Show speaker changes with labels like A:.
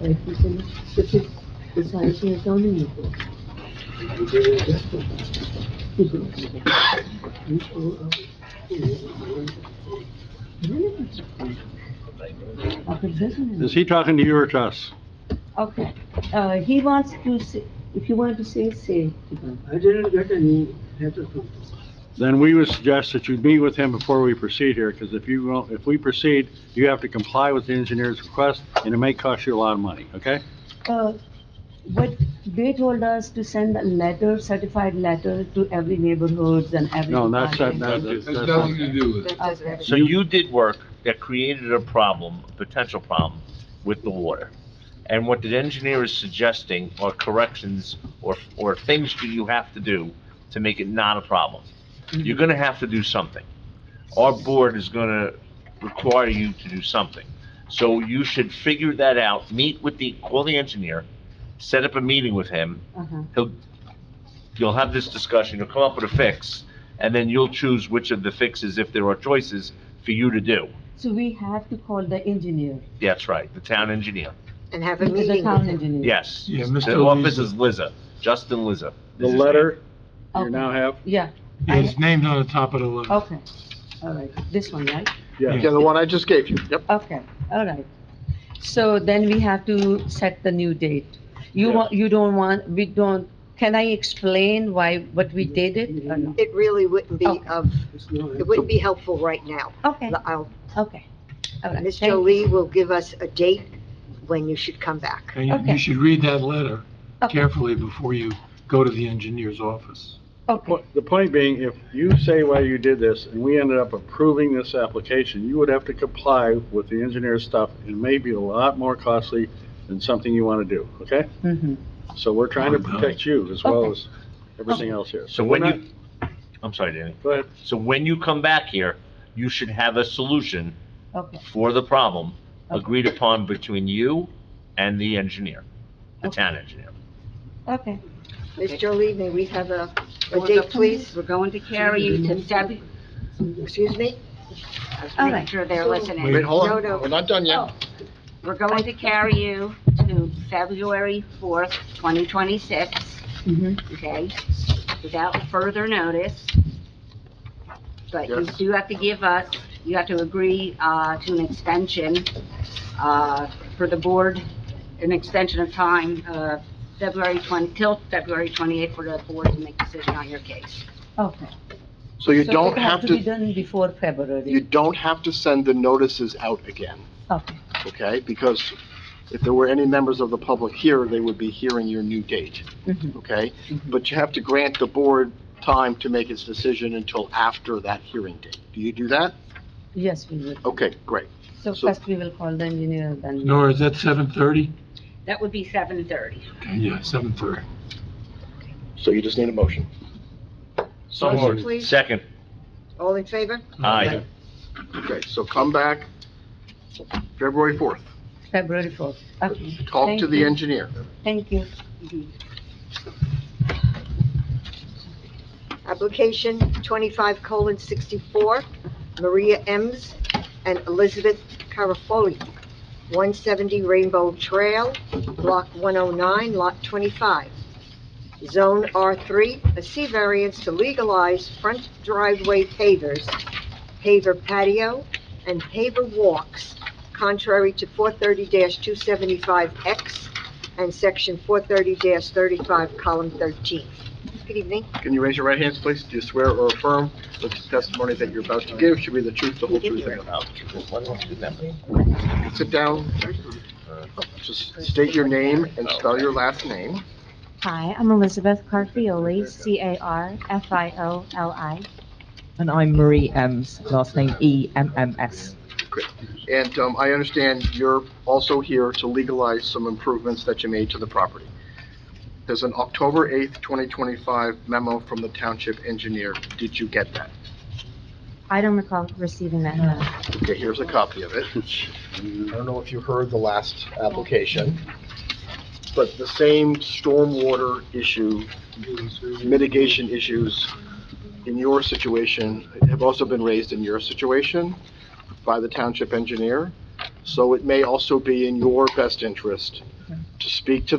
A: 来提升，就是补偿一些高利的，这种无偿而
B: Okay, this is-
C: Is he talking to you or to us?
B: okay, uh, he wants to say, if you want to say, say.
A: I didn't get any letter from
C: Then we would suggest that you meet with him before we proceed here, because if you, won't- if we proceed, you have to comply with the engineer's request, and it may cost you a lot of money, okay?
B: Uh, But they told us to send a letter, certified letter to every neighborhoods and every.
C: No, that's, not-
B: department.
C: that's,
D: Has
C: that's.
D: nothing to do with it.
B: Okay.
E: So you did work that created a problem, a potential problem with the water. And what the engineer is suggesting are corrections or, or things that you have to do to make it not a problem. You're gonna have to do something. Our board is gonna require you to do something. So you should figure that out, meet with the, call the engineer, set up a meeting with him.
B: Uh-huh.
E: He'll, you'll have this discussion, you'll come up with a fix, and then you'll choose which of the fixes, if there are choices, for you to do.
B: So we have to call the engineer,
E: That's right, the town engineer.
F: and have a meeting
B: the
F: with
B: town
F: him.
B: engineer.
E: Yes.
D: Yeah,
E: The
D: Mr.
E: office is Liza, Justin Liza.
C: The
E: is his
C: letter you
B: Okay.
C: now have?
B: Yeah,
D: His name's on the top of the letter.
B: okay, all right, this one, right?
G: Yeah, the one I just gave you, yep.
B: Okay, all right. So then we have to set the new date. You
C: Yeah.
B: want, you don't want, we don't, can I explain why, what we did it or no?
F: It really wouldn't be
B: Okay.
F: of, it wouldn't be helpful right now.
B: Oh. Okay,
F: I'll,
B: okay. All right,
F: Ms.
B: thank you.
F: Jolie will give us a date when you should come back.
D: And you-
B: Okay.
D: you should read that letter
B: Okay.
D: carefully before you go to the engineer's office.
B: Okay,
C: The point being, if you say why you did this, and we ended up approving this application, you would have to comply with the engineer's stuff, and it may be a lot more costly than something you want to do, okay?
B: mhm.
C: So we're trying to protect you as well
B: Okay.
C: as everything else here.
E: So
C: we're
E: when
C: not-
E: you, I'm sorry, Danny.
C: Go ahead.
E: So when you come back here, you should have a solution
B: okay,
E: for the problem
B: Okay.
E: agreed upon between you and the engineer, the
B: Okay.
E: town engineer.
B: okay.
F: Ms. Jolie, may we have a, a date, please?
H: We're going to carry you to Debbie,
F: Excuse me?
B: All
H: make
B: right,
H: sure they're listening.
G: Wait, hold
F: No, no.
G: on, we're not done yet.
H: We're going to carry you to February fourth, twenty twenty-six,
B: mhm.
H: okay? Without further notice. But you
G: Yes.
H: do have to give us, you have to agree, uh, to an extension, uh, for the board, an extension of time, uh, February twenty, till February twenty-eighth for the board to make a decision on your case.
B: Okay.
G: So you
B: So
G: don't
B: it
G: have
B: It be
G: to,
B: done before
G: you
B: February,
G: don't have to send the notices out again,
B: okay,
G: okay? Because if there were any members of the public here, they would be hearing your new date,
B: mhm.
G: okay? But you have to grant the board time to make its decision until after that hearing date. Do you do that?
B: yes, we will.
G: Okay, great.
B: So
G: So-
B: first we will call the engineer, then.
D: Nora, is that seven thirty?
H: That would be seven thirty.
D: Okay, yeah, seven thirty.
G: So you just need a motion.
E: So
F: Motion, please.
E: Second,
F: All in favor?
E: aye.
G: Okay, so come back February 4th.
B: February fourth, okay.
G: Talk
B: Thank
G: to the
B: you.
G: engineer.
B: Thank you.
F: Application twenty-five colon sixty-four, Maria Ems and Elizabeth Carafoli, one seventy Rainbow Trail, block one oh nine, lot twenty-five. Zone R three, a C variance to legalize front driveway pavers, paver patio, and paver walks contrary to four thirty two seventy-five X and section four thirty thirty-five, column thirteen. Good evening.
G: Can you raise your right hands, please? Do you swear or affirm that the testimony that you're about to give should be the truth, the whole truth, and nothing
E: Now, why don't you do that?
G: but- Sit down. Just state your name and spell your last name.
I: Hi, I'm Elizabeth Carfioli, C-A-R-F-I-O-L-I. And I'm Marie Ems, last name E E-M-M-S.
G: And um, I understand you're also here to legalize some improvements that you made to the property. There's an October 8th, 2025 memo from the township engineer. Did you get that?
I: I don't recall receiving that memo.
G: Okay, here's a copy of it. I don't know if you heard the last application, but the same stormwater issue, mitigation issues in your situation have also been raised in your situation by the township engineer. So it may also be in your best interest to speak to the